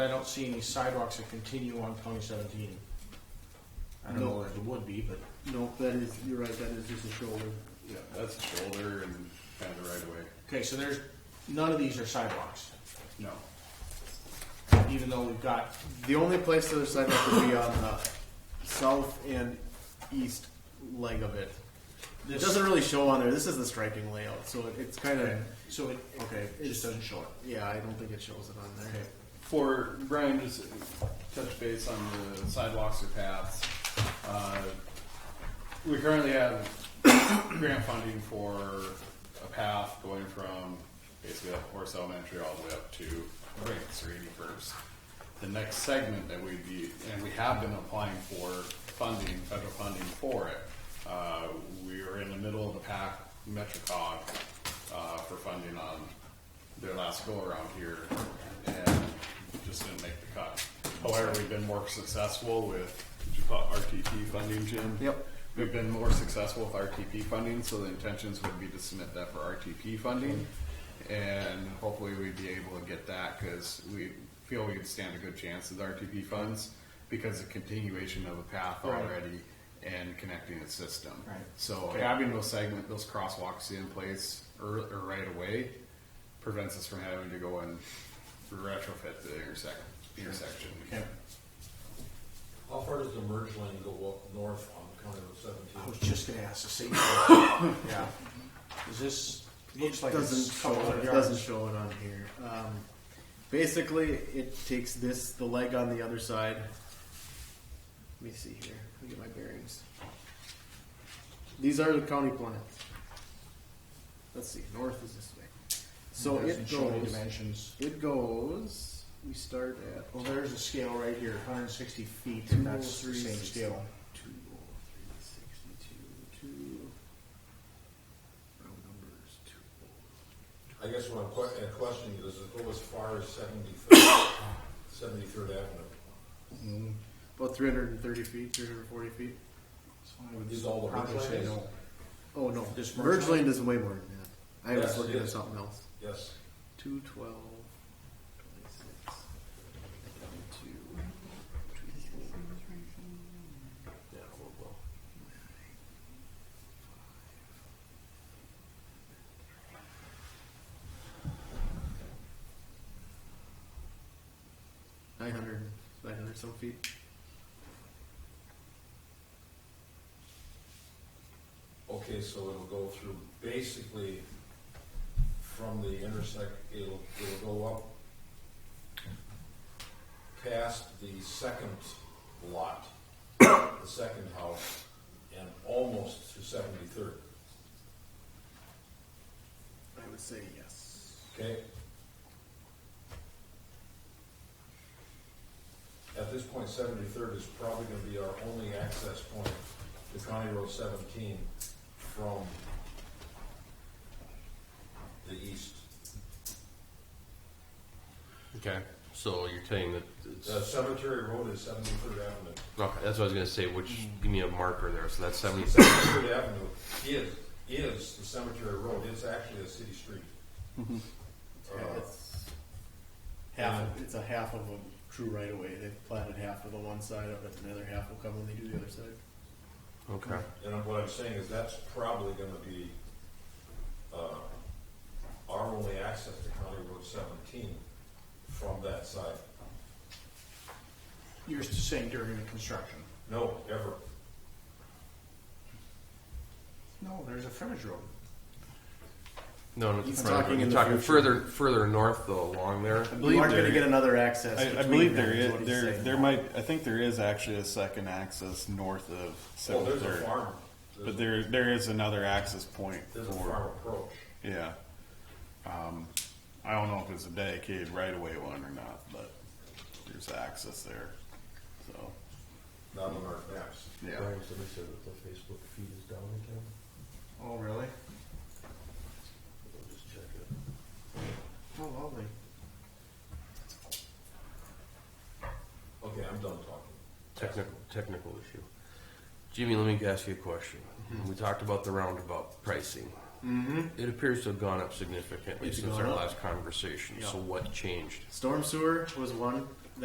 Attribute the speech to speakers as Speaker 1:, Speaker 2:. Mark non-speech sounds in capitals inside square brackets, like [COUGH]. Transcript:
Speaker 1: I don't see any sidewalks that continue on County Seventeen. I don't know if it would be, but
Speaker 2: No, that is, you're right, that is just a shoulder.
Speaker 3: Yeah, that's the shoulder and kind of the right away.
Speaker 1: okay. So there's none of these are sidewalks,
Speaker 3: No.
Speaker 1: even though we've got
Speaker 2: The only place the other sidewalk would be on the south and east leg of it. It
Speaker 1: this.
Speaker 2: doesn't really show on there. This is the striping layout, so it- it's kind
Speaker 1: okay,
Speaker 2: of,
Speaker 1: so it okay it
Speaker 2: It's-
Speaker 1: just doesn't show it.
Speaker 2: yeah, I don't think it shows it on there.
Speaker 1: Okay.
Speaker 3: For Brian, just touch base on the sidewalks or paths. Uh, we currently have grant funding for a path going from basically up Horse Elementary all the way up to Brinks or 81st. The next segment that we'd be, and we have been applying for funding, federal funding for it. Uh, we are in the middle of the pack, MetroCog, uh, for funding on their last go around here and just didn't make the cut. However, we've been more successful with, did you call it RTP funding, Jim?
Speaker 2: Yep.
Speaker 3: We've been more successful with RTP funding, so the intentions would be to submit that for RTP funding. And hopefully we'd be able to get that because we feel we'd stand a good chance with RTP funds because the continuation of a path
Speaker 1: Right.
Speaker 3: already and connecting the system.
Speaker 1: Right.
Speaker 3: So
Speaker 1: Okay.
Speaker 3: having those segment, those crosswalks in place ear or right away prevents us from having to go and retrofit the intersect, intersection.
Speaker 1: Okay.
Speaker 4: How far does the merge lane go up north on County Road
Speaker 1: I was
Speaker 4: seventeen?
Speaker 1: just gonna ask the same.
Speaker 2: [LAUGHS]
Speaker 1: question. yeah. Is this looks like
Speaker 2: doesn't
Speaker 1: it's a
Speaker 2: show
Speaker 1: couple
Speaker 2: it,
Speaker 1: of
Speaker 2: it
Speaker 1: yards.
Speaker 2: doesn't show it on here. Um, basically, it takes this the leg on the other side. Let me see here. Let me get my bearings. These are the county plans. Let's see. North is this way. So
Speaker 1: It
Speaker 2: it
Speaker 1: doesn't show any
Speaker 2: goes.
Speaker 1: dimensions.
Speaker 2: It goes. We start at
Speaker 1: Well, there's a scale right here, 160 feet, and that's the same
Speaker 2: 203,
Speaker 1: scale.
Speaker 2: 203, 62, two- round numbers, two- oh
Speaker 4: I guess what I'm que- uh, questioning is, does it go as far as seventy-third, seventy-third Avenue?
Speaker 2: Mm-hmm. About 330 feet, 340 feet.
Speaker 4: Is all the
Speaker 1: Probably
Speaker 4: merge
Speaker 1: say
Speaker 4: lane?
Speaker 1: no.
Speaker 2: Oh no,
Speaker 1: This merge
Speaker 2: merge
Speaker 1: lane?
Speaker 2: lane is way more than that. I was
Speaker 4: Yes, it
Speaker 2: looking at
Speaker 4: is.
Speaker 2: something else.
Speaker 4: Yes,
Speaker 2: Two twelve, twenty-six, two,
Speaker 4: yeah, well, well,
Speaker 2: nine hundred, nine hundred some feet.
Speaker 4: okay, so it'll go through basically from the intersect, it'll, it'll go up past the second lot, the second house, and almost to seventy-third,
Speaker 2: I would say yes.
Speaker 4: okay? At this point, seventy-third is probably gonna be our only access point to County Road seventeen from the east.
Speaker 5: Okay, so you're saying that it's,
Speaker 4: The cemetery road is seventy-third avenue.
Speaker 5: okay, that's what I was gonna say, which, give me a marker there, so that's seventy,
Speaker 4: Seventy-third avenue is, is the cemetery road, it's actually a city street.
Speaker 2: Oh.
Speaker 4: Uh,
Speaker 2: It's half, of- it's a half of a true right of way. They've platted half of the one side of it and the other half will come when they do the other side.
Speaker 5: okay.
Speaker 4: And what I'm saying is that's probably gonna be, uh, our only access to County Road seventeen from that side.
Speaker 1: You're saying during the construction.
Speaker 4: No, ever.
Speaker 1: No, there's a frontage road.
Speaker 5: No, no,
Speaker 2: He's
Speaker 5: front of-
Speaker 2: talking
Speaker 5: you're
Speaker 2: in the
Speaker 5: talking
Speaker 2: future.
Speaker 5: further, further north though, along there.
Speaker 2: I
Speaker 6: believe
Speaker 2: You aren't gonna
Speaker 6: there-
Speaker 2: get another access
Speaker 6: I, I
Speaker 2: between
Speaker 6: believe
Speaker 2: them,
Speaker 6: there
Speaker 2: is what
Speaker 6: is
Speaker 2: he's
Speaker 6: there
Speaker 2: saying.
Speaker 6: there might I think there is actually a second access north of
Speaker 4: Oh,
Speaker 6: Seventh
Speaker 4: there's a
Speaker 6: Third.
Speaker 4: farm.
Speaker 6: but there there is another access point
Speaker 4: There's a
Speaker 6: for
Speaker 4: farm approach.
Speaker 6: yeah. Um, I don't know if it's a dedicated right away one or not, but there's access there. So
Speaker 2: Oh,
Speaker 4: Not on our maps.
Speaker 6: yeah,
Speaker 7: Brian, somebody said that the Facebook feed is down again.
Speaker 1: Oh, really?
Speaker 7: I'll just check it.
Speaker 1: Oh, lovely.
Speaker 4: Okay, I'm done talking.
Speaker 5: Technical, technical issue. Jimmy, let me ask you a question.
Speaker 7: Mm-hmm.
Speaker 5: We talked about the roundabout pricing. It appears to have gone up significantly
Speaker 2: It's
Speaker 5: since
Speaker 2: gone
Speaker 5: our
Speaker 2: up.
Speaker 5: last conversation, so
Speaker 2: Yeah.
Speaker 5: what changed?
Speaker 2: Storm sewer was one.